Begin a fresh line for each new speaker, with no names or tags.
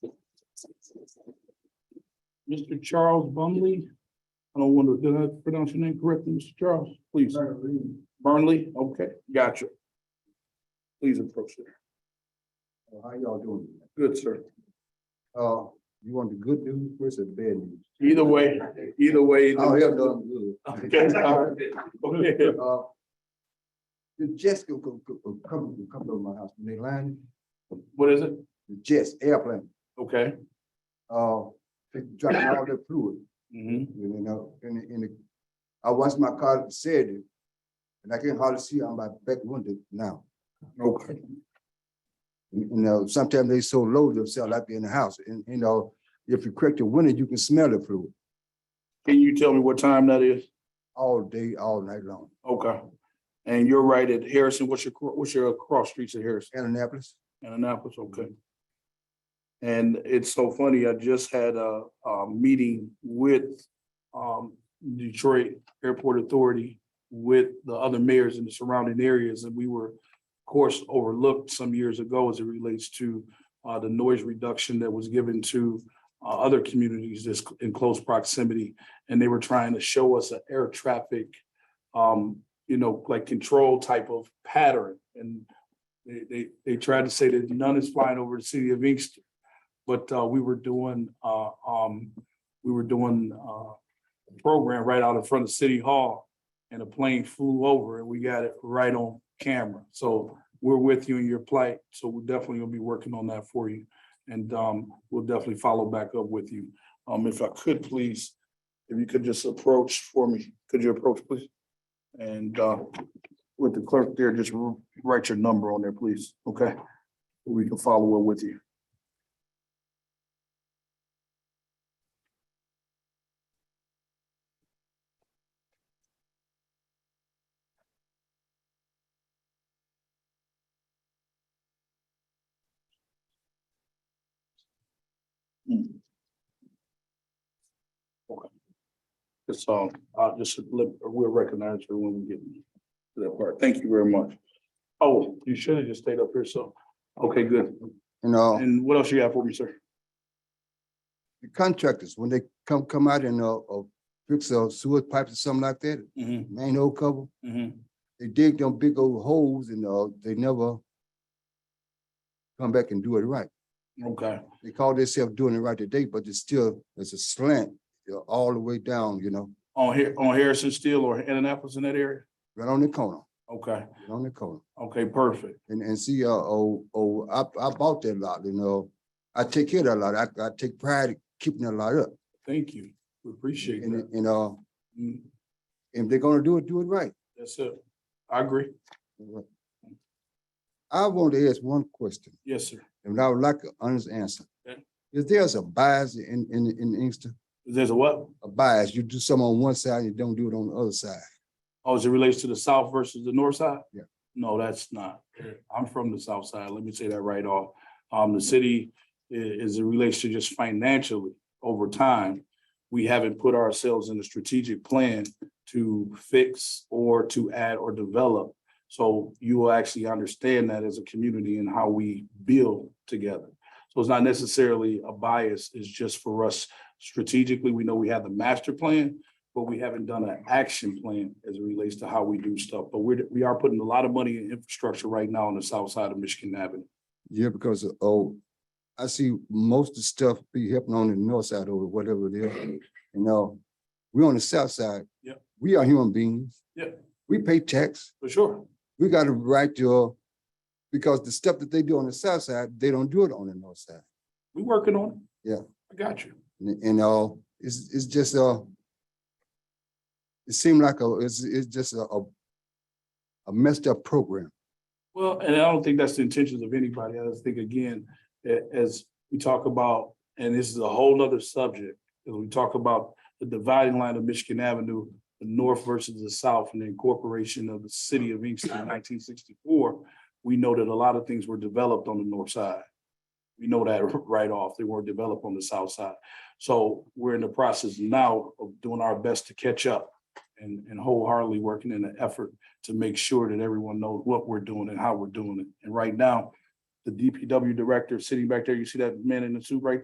Mr. Charles Bumley. I don't wonder, did I pronounce your name correctly, Mr. Charles? Please. Burnley, okay, gotcha. Please approach there.
How y'all doing?
Good, sir.
Uh, you want the good news first or the bad news?
Either way, either way.
Oh, yeah, done
Okay, all right.
good.
Okay.
Uh, The Jets go, go, go, go, come, go come to my house, when they land,
What is it?
the Jets airplane,
Okay.
uh, they drop all the fluid,
Mhm.
you know, in, the- in the. I watched my car Saturday, and I can hardly see on my back window now.
Okay.
You you know, sometimes they so load themselves out there in the house, and, you know, if you crack the window, you can smell the fluid
Can you tell me what time that is?
all day, all night long.
Okay. And you're right at Harrison, what's your, cro- what's your cross streets at Harrison?
Annapolis,
Annapolis, okay. And it's so funny, I just had a, a meeting with, um, Detroit Airport Authority with the other mayors in the surrounding areas, and we were, of course, overlooked some years ago as it relates to, uh, the noise reduction that was given to, uh, other communities that's in close proximity. And they were trying to show us an air traffic, um, you know, like control type of pattern. And they, they, they tried to say that none is flying over the city of Inkster. But, uh, we were doing, uh, um, we were doing, uh, a program right out in front of City Hall. And a plane flew over and we got it right on camera. So we're with you in your plight. So we're definitely gonna be working on that for you. And, um, we'll definitely follow back up with you. Um, if I could, please, if you could just approach for me, could you approach, please? And, uh, with the clerk there, just r- write your number on there, please, okay? We can follow up with you. Hmm. Okay. It's, um, I'll just, let- we'll recognize her when we get to that part. Thank you very much. Oh, you should have just stayed up here, so, okay, good.
you know.
And what else you have for me, sir?
the contractors, when they come, come out and, uh, uh, fix a sewer pipes or something like that,
Mm-hmm,
main old cover,
mm-hmm.
they dig them big old holes and, uh, they never come back and do it right.
Okay,
They call themselves doing it right today, but it's still, it's a slant, you know, all the way down, you know,
on here, on Harrison Steel or Annapolis in that area?
right on the corner,
Okay,
right on the corner.
okay, perfect.
And, and see, uh, oh, oh, I, I bought that lot, you know, I take care of that lot, I, I take pride in keeping that lot up.
Thank you. We appreciate
And,
that.
and, uh,
Mm,
if they're gonna do it, do it right.
That's it. I agree.
I want to ask one question.
Yes, sir.
And I would like an honest answer.
Okay.
Is there's a bias in, in, in Inkster?
There's a what?
A bias, you do something on one side, you don't do it on the other side.
Oh, as it relates to the south versus the north side?
Yeah.
No, that's not. I'm from the south side. Let me say that right off. Um, the city i- is it relates to just financially over time. We haven't put ourselves in a strategic plan to fix or to add or develop. So you will actually understand that as a community and how we build together. So it's not necessarily a bias, it's just for us strategically, we know we have the master plan, but we haven't done an action plan as it relates to how we do stuff. But we're, we are putting a lot of money in infrastructure right now on the south side of Michigan Avenue.
Yeah, because, oh, I see most of the stuff be happening on the north side or whatever it is. You know, we on the south side.
Yeah.
We are human beings.
Yeah.
We pay tax.
For sure.
We got a right to, uh, because the stuff that they do on the south side, they don't do it on the north side.
We working on it.
Yeah.
I got you.
And, and, uh, it's, it's just, uh, it seemed like a, it's, it's just a, a a messed up program.
Well, and I don't think that's the intentions of anybody. I just think again, a- as we talk about, and this is a whole nother subject, as we talk about the dividing line of Michigan Avenue, the north versus the south and the incorporation of the city of Inkster in nineteen sixty-four, we know that a lot of things were developed on the north side. We know that right off. They weren't developed on the south side. So we're in the process now of doing our best to catch up and, and wholeheartedly working in an effort to make sure that everyone knows what we're doing and how we're doing it. And right now, the DPW director sitting back there, you see that man in the suit right